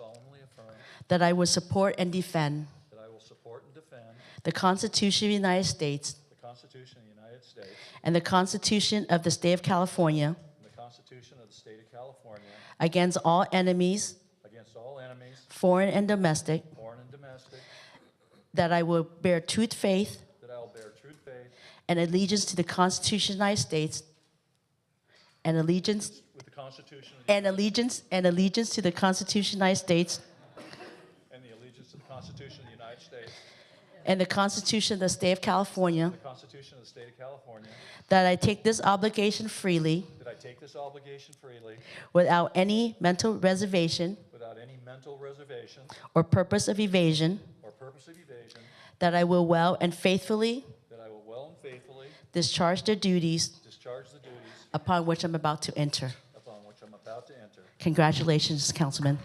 solemnly affirm that I will support and defend that I will support and defend the Constitution of the United States the Constitution of the United States and the Constitution of the State of California and the Constitution of the State of California against all enemies, against all enemies, foreign and domestic, foreign and domestic, that I will bear true faith that I will bear true faith and allegiance to the Constitution of the United States and allegiance with the Constitution of the- and allegiance and allegiance to the Constitution of the United States and the allegiance to the Constitution of the United States, and the Constitution of the State of California, the Constitution of the State of California, that I take this obligation freely that I take this obligation freely without any mental reservation without any mental reservation or purpose of evasion, or purpose of evasion, that I will well and faithfully that I will well and faithfully discharge the duties discharge the duties upon which I'm about to enter. upon which I'm about to enter. Congratulations, Councilman.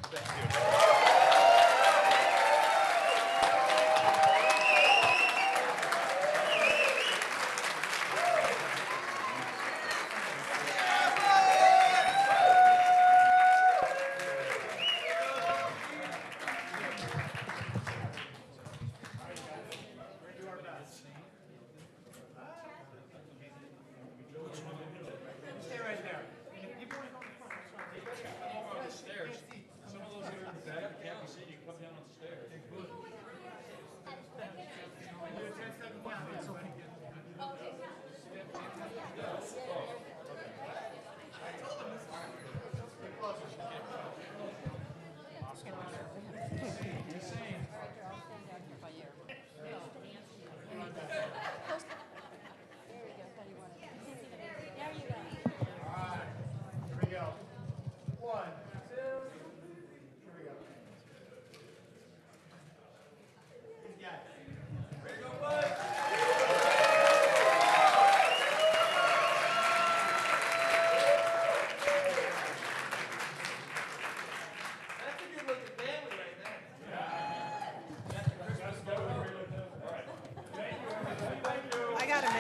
I got a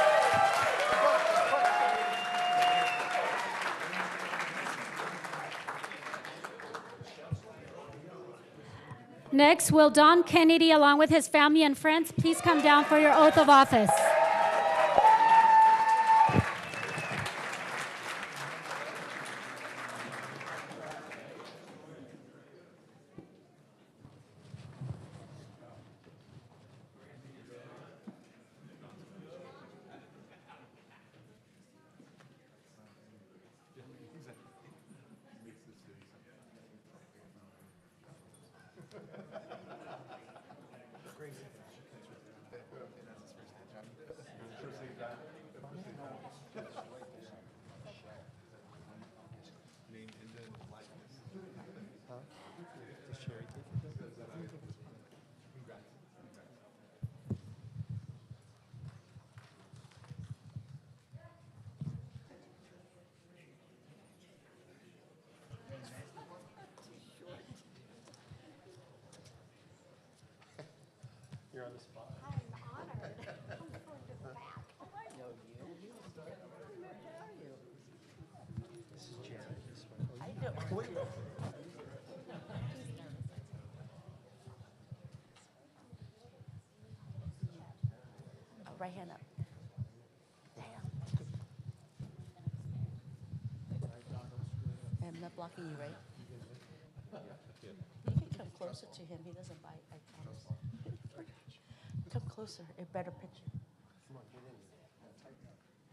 minute. Next, will Don Kennedy, along with his family and friends, please come down for your oath of office? Oh, Right hand up. I'm not blocking you, right? You can come closer to him, he doesn't bite, I promise. Come closer, a better picture. Are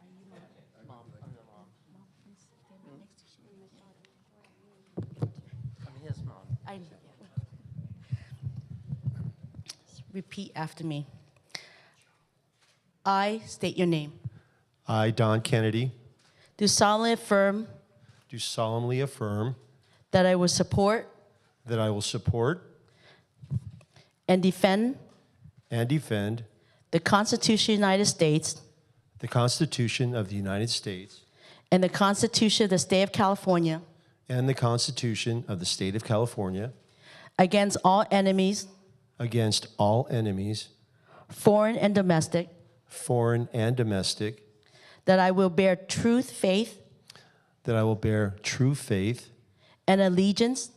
you mom? Mom, please stand next to you. I'm his mom. I know. Repeat after me. I state your name. I, Don Kennedy, Do solemnly affirm do solemnly affirm that I will support that I will support and defend and defend the Constitution of the United States the Constitution of the United States and the Constitution of the State of California and the Constitution of the State of California against all enemies, against all enemies, foreign and domestic, foreign and domestic, that I will bear truth, faith, that I will bear true faith and allegiance